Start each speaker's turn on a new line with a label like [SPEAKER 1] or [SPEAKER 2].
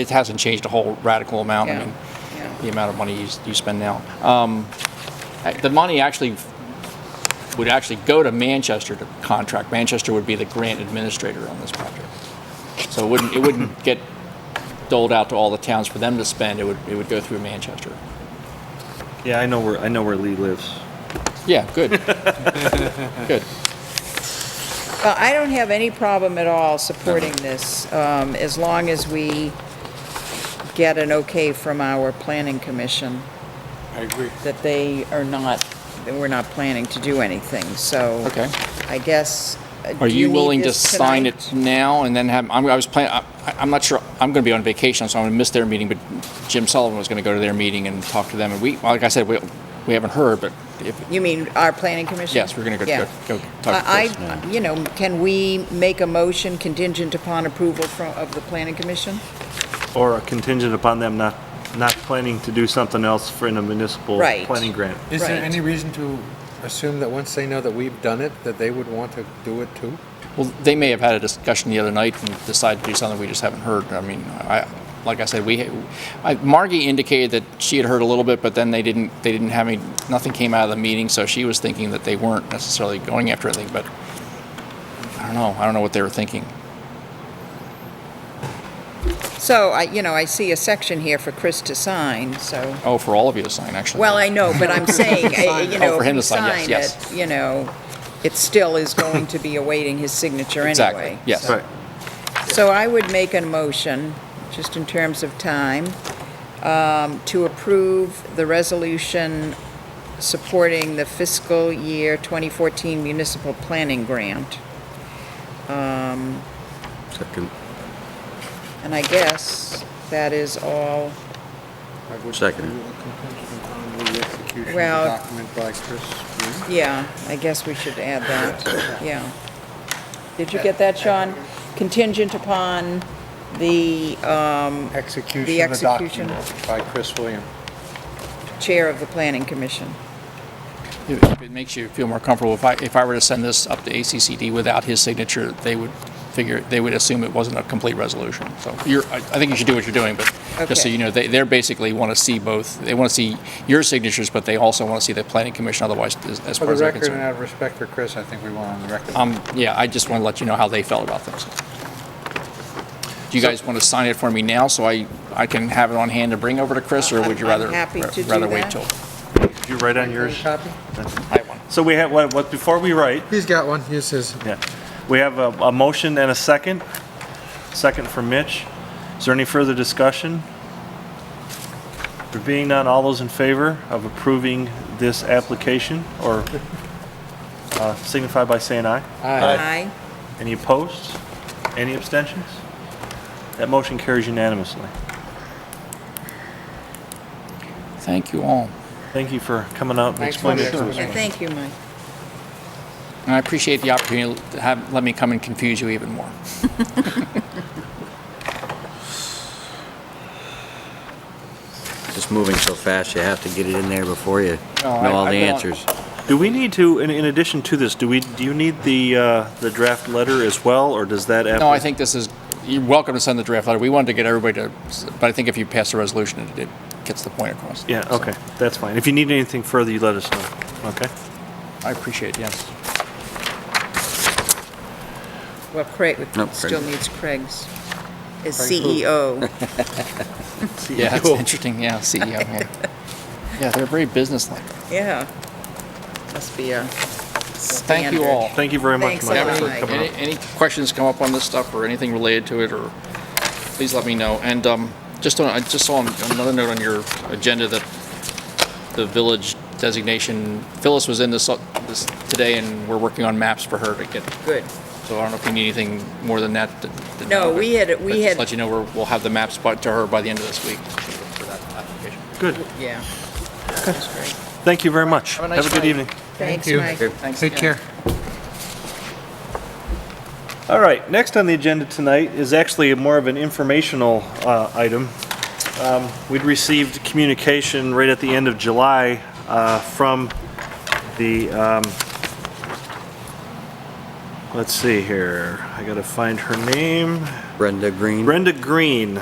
[SPEAKER 1] It hasn't changed a whole radical amount. I
[SPEAKER 2] Yeah,
[SPEAKER 1] mean,
[SPEAKER 2] yeah.
[SPEAKER 1] the amount of money you, you spend now. Um, I- the money actually would actually go to Manchester to contract. Manchester would be the grant administrator on this project. So it wouldn't, it wouldn't get doled out to all the towns for them to spend. It would, it would go through Manchester.
[SPEAKER 3] Yeah, I know where I know where Lee lives.
[SPEAKER 1] Yeah, good. Good.
[SPEAKER 2] Well, I don't have any problem at all supporting this, um, as long as we get an okay from our planning commission
[SPEAKER 4] I agree.
[SPEAKER 2] that they are not, that we're not planning to do anything, so.
[SPEAKER 1] Okay.
[SPEAKER 2] I guess. uh,
[SPEAKER 1] Are
[SPEAKER 2] do
[SPEAKER 1] you
[SPEAKER 2] need
[SPEAKER 1] willing to
[SPEAKER 2] this
[SPEAKER 1] sign
[SPEAKER 2] tonight?
[SPEAKER 1] it now and then have, I'm- I was planning, I- I'm not sure, I'm going to be on vacation, so I'm going to miss their meeting, but Jim Sullivan was going to go to their meeting and talk to them. And we, like I said, we, we haven't heard, but if,
[SPEAKER 2] You mean our planning commission?
[SPEAKER 1] Yes, we're gonna go-
[SPEAKER 2] Yeah.
[SPEAKER 1] go- go talk to
[SPEAKER 2] I,
[SPEAKER 1] Chris.
[SPEAKER 2] I- you know, can we make a motion contingent upon approval from, of the planning commission?
[SPEAKER 3] Or a contingent upon them not not planning to do something else for in a municipal
[SPEAKER 2] Right.
[SPEAKER 3] planning grant.
[SPEAKER 4] Is there
[SPEAKER 2] Right.
[SPEAKER 4] any reason to assume that once they know that we've done it, that they would want to do it too?
[SPEAKER 1] Well, they may have had a discussion the other night and decided to do something we just haven't heard. I mean, I, like I said, we, I, Margie indicated that she had heard a little bit, but then they didn't, they didn't have any, nothing came out of the meeting, so she was thinking that they weren't necessarily going after anything, but I don't know, I don't know what they were thinking.
[SPEAKER 2] So I, you know, I see a section here for Chris to sign, so.
[SPEAKER 1] Oh, for all of you to sign, actually.
[SPEAKER 2] Well, I know, but I'm saying, I- you know,
[SPEAKER 1] Oh, for
[SPEAKER 2] if
[SPEAKER 1] him
[SPEAKER 2] you
[SPEAKER 1] to sign, yes,
[SPEAKER 2] sign
[SPEAKER 1] yes.
[SPEAKER 2] it, you know, it still is going to be awaiting his signature
[SPEAKER 1] Exactly,
[SPEAKER 2] anyway.
[SPEAKER 1] yes.
[SPEAKER 3] Right.
[SPEAKER 2] So I would make a motion, just in terms of time, um, to approve the resolution supporting the fiscal year 2014 municipal planning grant.
[SPEAKER 3] Second.
[SPEAKER 2] And I guess that is all,
[SPEAKER 3] Second.
[SPEAKER 2] Well-
[SPEAKER 4] Document by Chris.
[SPEAKER 2] yeah, I guess we should add that, yeah. Did you get that, Sean? Contingent upon the um, The
[SPEAKER 4] Execution of the
[SPEAKER 2] execution.
[SPEAKER 4] document by Chris William.
[SPEAKER 2] chair of the planning commission.
[SPEAKER 1] If if it makes you feel more comfortable, if I, if I were to send this up to ACCD without his signature, they would figure, they would assume it wasn't a complete resolution. So you're, I I think you should do what you're doing, but just so
[SPEAKER 2] Okay.
[SPEAKER 1] you know, they, they're basically want to see both, they want to see your signatures, but they also want to see the planning commission otherwise, as as far
[SPEAKER 4] For the
[SPEAKER 1] as I'm
[SPEAKER 4] record and out
[SPEAKER 1] concerned.
[SPEAKER 4] of respect for Chris, I think we want on the record.
[SPEAKER 1] Um, yeah, I just want to let you know how they felt about things. Do you guys want to sign it for me now, so I, I can have it on hand to bring over to Chris, or
[SPEAKER 2] I'm-
[SPEAKER 1] would you
[SPEAKER 2] I'm
[SPEAKER 1] rather?
[SPEAKER 2] happy to do
[SPEAKER 1] Rather wait
[SPEAKER 2] that.
[SPEAKER 1] till
[SPEAKER 3] Did you write on yours?
[SPEAKER 4] Copy?
[SPEAKER 1] I have one?
[SPEAKER 3] So we have what, what before we write.
[SPEAKER 4] He's got one, here's his.
[SPEAKER 3] Yeah. We have a, a motion and a second. Second from Mitch. Is there any further discussion? There being none, all those in favor of approving this application or uh, signify by saying aye.
[SPEAKER 2] Aye.
[SPEAKER 3] Any opposed? Any abstentions? That motion carries unanimously.
[SPEAKER 1] Thank you all.
[SPEAKER 3] Thank you for coming out and
[SPEAKER 4] Thanks for
[SPEAKER 3] explaining it
[SPEAKER 4] the
[SPEAKER 3] to us.
[SPEAKER 2] Yeah, thank you, Mike.
[SPEAKER 1] And I appreciate the opportunity to have, let me come and confuse you even more.
[SPEAKER 5] Just moving so fast, you have to get it in there before you
[SPEAKER 1] No, I-
[SPEAKER 5] know all the
[SPEAKER 1] I've been on-
[SPEAKER 5] answers.
[SPEAKER 3] Do we need to, in, in addition to this, do we, do you need the, uh, the draft letter as well, or does that?
[SPEAKER 1] No, I think this is, you're welcome to send the draft letter. We wanted to get everybody to, but I think if you pass the resolution, it it gets the point across.
[SPEAKER 3] Yeah, oh.
[SPEAKER 1] So,
[SPEAKER 3] okay, that's fine. If you need anything further, you let us know, okay?
[SPEAKER 1] I appreciate it, yes.
[SPEAKER 2] Well, Craig,
[SPEAKER 5] No, Craig.
[SPEAKER 2] still needs Craig's, E as CEO.
[SPEAKER 1] Yeah, that's interesting, yeah, CEO. yeah. Yeah, they're very businesslike.
[SPEAKER 2] Yeah. Must be uh, a
[SPEAKER 1] Thank you all.
[SPEAKER 3] Thank you very much,
[SPEAKER 2] Thanks a
[SPEAKER 3] Mike,
[SPEAKER 2] lot,
[SPEAKER 3] for
[SPEAKER 2] Mike.
[SPEAKER 3] coming
[SPEAKER 1] Any
[SPEAKER 3] up.
[SPEAKER 1] any questions come up on this stuff or anything related to it, or please let me know. And um, just on, I just saw on- another note on your agenda that the village designation, Phyllis was in this, uh, this today, and we're working on maps for her to get,
[SPEAKER 2] Good.
[SPEAKER 1] so I don't know if you need anything more than that. th- th-
[SPEAKER 2] No, we had-
[SPEAKER 1] but-
[SPEAKER 2] we
[SPEAKER 1] but just
[SPEAKER 2] had-
[SPEAKER 1] Let you know, we're, we'll have the maps by- to her by the end of this week for that application.
[SPEAKER 3] Good,
[SPEAKER 2] Yeah. That's great.
[SPEAKER 3] thank you very much.
[SPEAKER 1] Have a
[SPEAKER 3] Have
[SPEAKER 1] nice
[SPEAKER 3] a good
[SPEAKER 1] night.
[SPEAKER 3] evening.
[SPEAKER 2] Thanks,
[SPEAKER 4] you.
[SPEAKER 2] Mike.
[SPEAKER 1] Thanks
[SPEAKER 4] Take
[SPEAKER 1] again.
[SPEAKER 4] care.
[SPEAKER 3] All right, next on the agenda tonight is actually more of an informational uh, item. Um, We'd received communication right at the end of July uh, from the, um, let's see here, I gotta find her name.
[SPEAKER 5] Brenda Green?
[SPEAKER 3] Brenda Green,